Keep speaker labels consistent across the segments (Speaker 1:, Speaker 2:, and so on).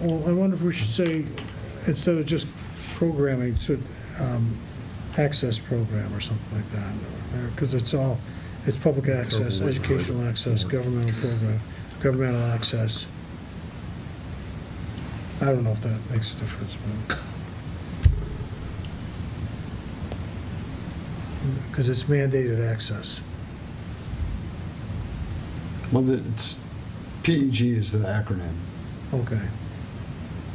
Speaker 1: Well, I wonder if we should say, instead of just programming, should um, access program or something like that, because it's all, it's public access, educational access, governmental program, governmental access. I don't know if that makes a difference, but. Because it's mandated access.
Speaker 2: Well, the- it's, PEG is the acronym,
Speaker 1: Okay.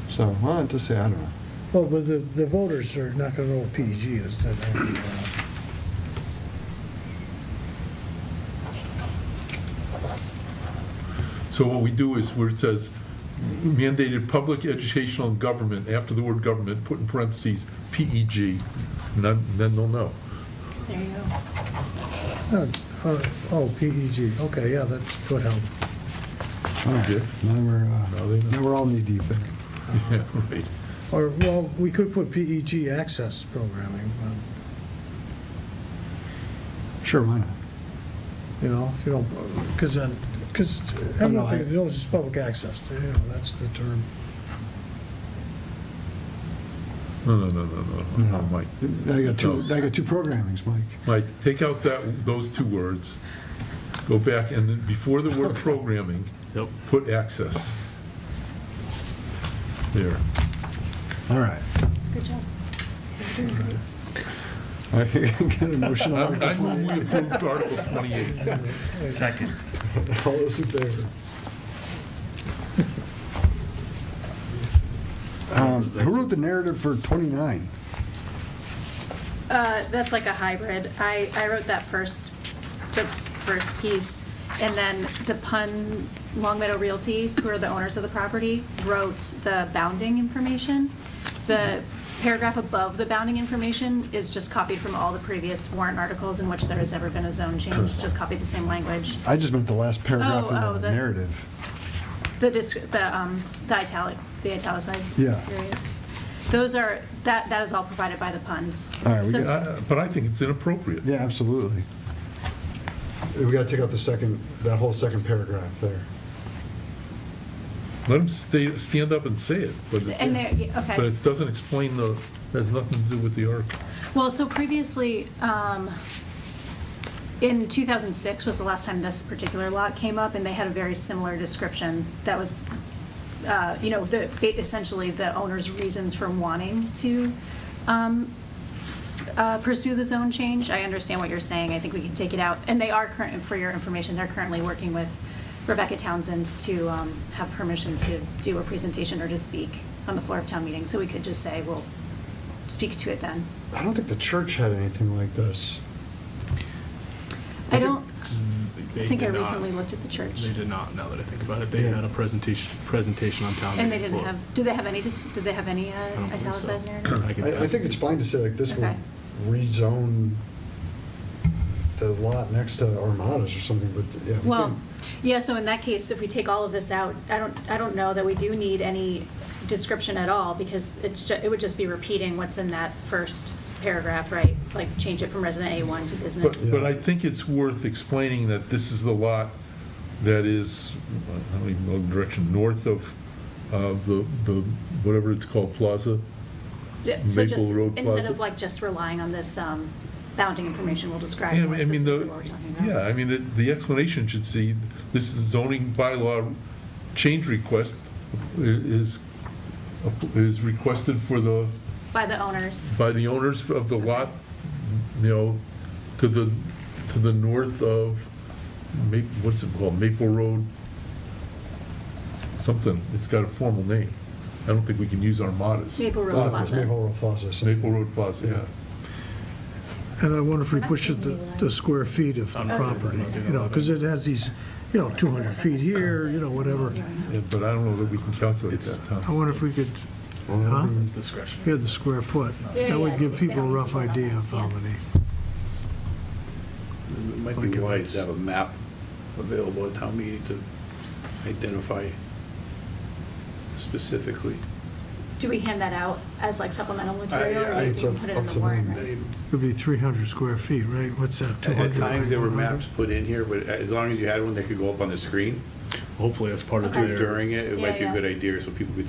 Speaker 2: so I'll have to say, I don't know.
Speaker 1: Well, but the, the voters are not going to know what PEG is. that-
Speaker 3: So what we do is where it says mandated public educational and government, after the word government, put in parentheses, PEG, and then then they'll know.
Speaker 4: There you go.
Speaker 1: Oh, all right. Oh, PEG, okay, yeah, that would help.
Speaker 2: All right,
Speaker 3: did?
Speaker 2: Now we're,
Speaker 3: No, they
Speaker 2: uh,
Speaker 3: don't.
Speaker 2: now we're all knee deep in it.
Speaker 3: Yeah, right.
Speaker 1: Or, well, we could put PEG access programming, but,
Speaker 2: Sure, why not?
Speaker 1: you know, if you don't, because then, because
Speaker 2: I know,
Speaker 1: everything,
Speaker 2: I-
Speaker 1: you know, it's just public access, you know, that's the term.
Speaker 3: No, no, no, no, no,
Speaker 2: Oh,
Speaker 3: no, Mike.
Speaker 2: I got two, I got two programmings, Mike.
Speaker 3: Mike, take out that, those two words, go back, and then before the word programming,
Speaker 5: Yep.
Speaker 3: put access. There.
Speaker 2: All right.
Speaker 4: Good job.
Speaker 2: I Get a motion
Speaker 3: I
Speaker 2: on
Speaker 3: I
Speaker 2: Article
Speaker 3: move we
Speaker 2: 28.
Speaker 3: approve Article 28.
Speaker 5: Second.
Speaker 2: All those in favor? Um, Who wrote the narrative for 29?
Speaker 4: Uh, That's like a hybrid. I, I wrote that first, the first piece, and then the pun, Long Meadow Realty, who are the owners of the property, wrote the bounding information. The paragraph above the bounding information is just copied from all the previous warrant articles in which there has ever been a zone change, just copy the same language.
Speaker 2: I just meant the last paragraph
Speaker 4: Oh, oh,
Speaker 2: in the
Speaker 4: the-
Speaker 2: narrative.
Speaker 4: The, disc- the um, the italic, the italicized.
Speaker 2: Yeah.
Speaker 4: area. Those are, that, that is all provided by the puns.
Speaker 2: All right, we
Speaker 4: So-
Speaker 3: Uh, But I think it's inappropriate.
Speaker 2: Yeah, absolutely. We got to take out the second, that whole second paragraph there.
Speaker 3: Let them stay, stand up and say it, but
Speaker 4: And there,
Speaker 3: it,
Speaker 4: yeah, okay.
Speaker 3: but it doesn't explain the, has nothing to do with the article.
Speaker 4: Well, so previously, um, in 2006 was the last time this particular lot came up, and they had a very similar description that was, uh, you know, the, essentially the owner's reasons for wanting to um, uh, pursue the zone change. I understand what you're saying. I think we can take it out. And they are current, for your information, they're currently working with Rebecca Townsend to um, have permission to do a presentation or to speak on the floor of town meeting. So we could just say, we'll speak to it then.
Speaker 2: I don't think the church had anything like this.
Speaker 4: I don't,
Speaker 5: They
Speaker 4: I think I
Speaker 5: did not-
Speaker 4: recently looked at the church.
Speaker 5: They did not, now that I think about it. They
Speaker 2: Yeah.
Speaker 5: had a presentation, presentation on town.
Speaker 4: And they
Speaker 5: meeting
Speaker 4: didn't
Speaker 5: floor.
Speaker 4: have, do they have any, dis- do they have any uh,
Speaker 5: I don't believe so.
Speaker 4: italicized narrative?
Speaker 5: could-
Speaker 2: I, I think it's fine to say like this would
Speaker 4: Okay.
Speaker 2: rezone the lot next to Armadas or something, but yeah. we
Speaker 4: Well,
Speaker 2: can-
Speaker 4: yeah, so in that case, if we take all of this out, I don't, I don't know that we do need any description at all, because it's, ju- it would just be repeating what's in that first paragraph, right? Like, change it from resident A1 to
Speaker 3: But,
Speaker 4: business.
Speaker 3: but I think it's worth explaining that this is the lot that is, I don't even know the direction, north of, of the, the, whatever it's called, plaza.
Speaker 4: Yeah, So
Speaker 3: Maple
Speaker 4: just,
Speaker 3: Road
Speaker 4: instead
Speaker 3: Plaza.
Speaker 4: of like just relying on this um, bounding information, we'll describe
Speaker 3: Yeah,
Speaker 4: more
Speaker 3: I mean, the-
Speaker 4: specifically what we're talking about.
Speaker 3: Yeah, I mean, it- the explanation should see, this is zoning bylaw change request i- is, is requested for the,
Speaker 4: By the owners.
Speaker 3: by the owners of the lot, you know, to the, to the north of, Ma- what's it called, Maple Road? Something, it's got a formal name. I don't think we can use Armadas.
Speaker 4: Maple Road
Speaker 2: Plaza,
Speaker 4: Plaza.
Speaker 2: Maple Road Plaza.
Speaker 3: It's
Speaker 2: so-
Speaker 3: Maple Road Plaza, yeah.
Speaker 1: And I wonder if we push it the, the square feet of the property, you know, because it has these, you know, 200 feet here, you know, whatever.
Speaker 3: Yeah, But I don't know that we can calculate that,
Speaker 1: I
Speaker 3: Tom.
Speaker 1: wonder if we could,
Speaker 2: Well, that'll
Speaker 1: Huh?
Speaker 2: be-
Speaker 5: It's discretion.
Speaker 1: get the square foot.
Speaker 4: Yeah,
Speaker 1: That
Speaker 4: yeah,
Speaker 1: would give
Speaker 4: it's- they
Speaker 1: people a
Speaker 4: don't need to
Speaker 1: rough
Speaker 4: worry about
Speaker 1: idea
Speaker 4: that,
Speaker 1: of
Speaker 4: yeah.
Speaker 1: how many.
Speaker 6: It might be wise to have a map available at town meeting to identify specifically.
Speaker 4: Do we hand that out as like supplemental material?
Speaker 6: I-
Speaker 4: or
Speaker 6: I-
Speaker 4: you
Speaker 2: it's
Speaker 4: can
Speaker 2: up-
Speaker 4: put it
Speaker 2: up
Speaker 4: in the
Speaker 2: to
Speaker 4: warrant,
Speaker 2: them.
Speaker 4: right?
Speaker 6: They-
Speaker 1: It'd be 300 square feet, right? What's that, 200?
Speaker 6: At times, there were
Speaker 1: 100?
Speaker 6: maps put in here, but as long as you had one that could go up on the screen
Speaker 5: Hopefully, as part of
Speaker 4: Okay.
Speaker 5: their.
Speaker 6: during it, it might be
Speaker 4: Yeah,
Speaker 6: a
Speaker 4: yeah.
Speaker 6: good idea so people could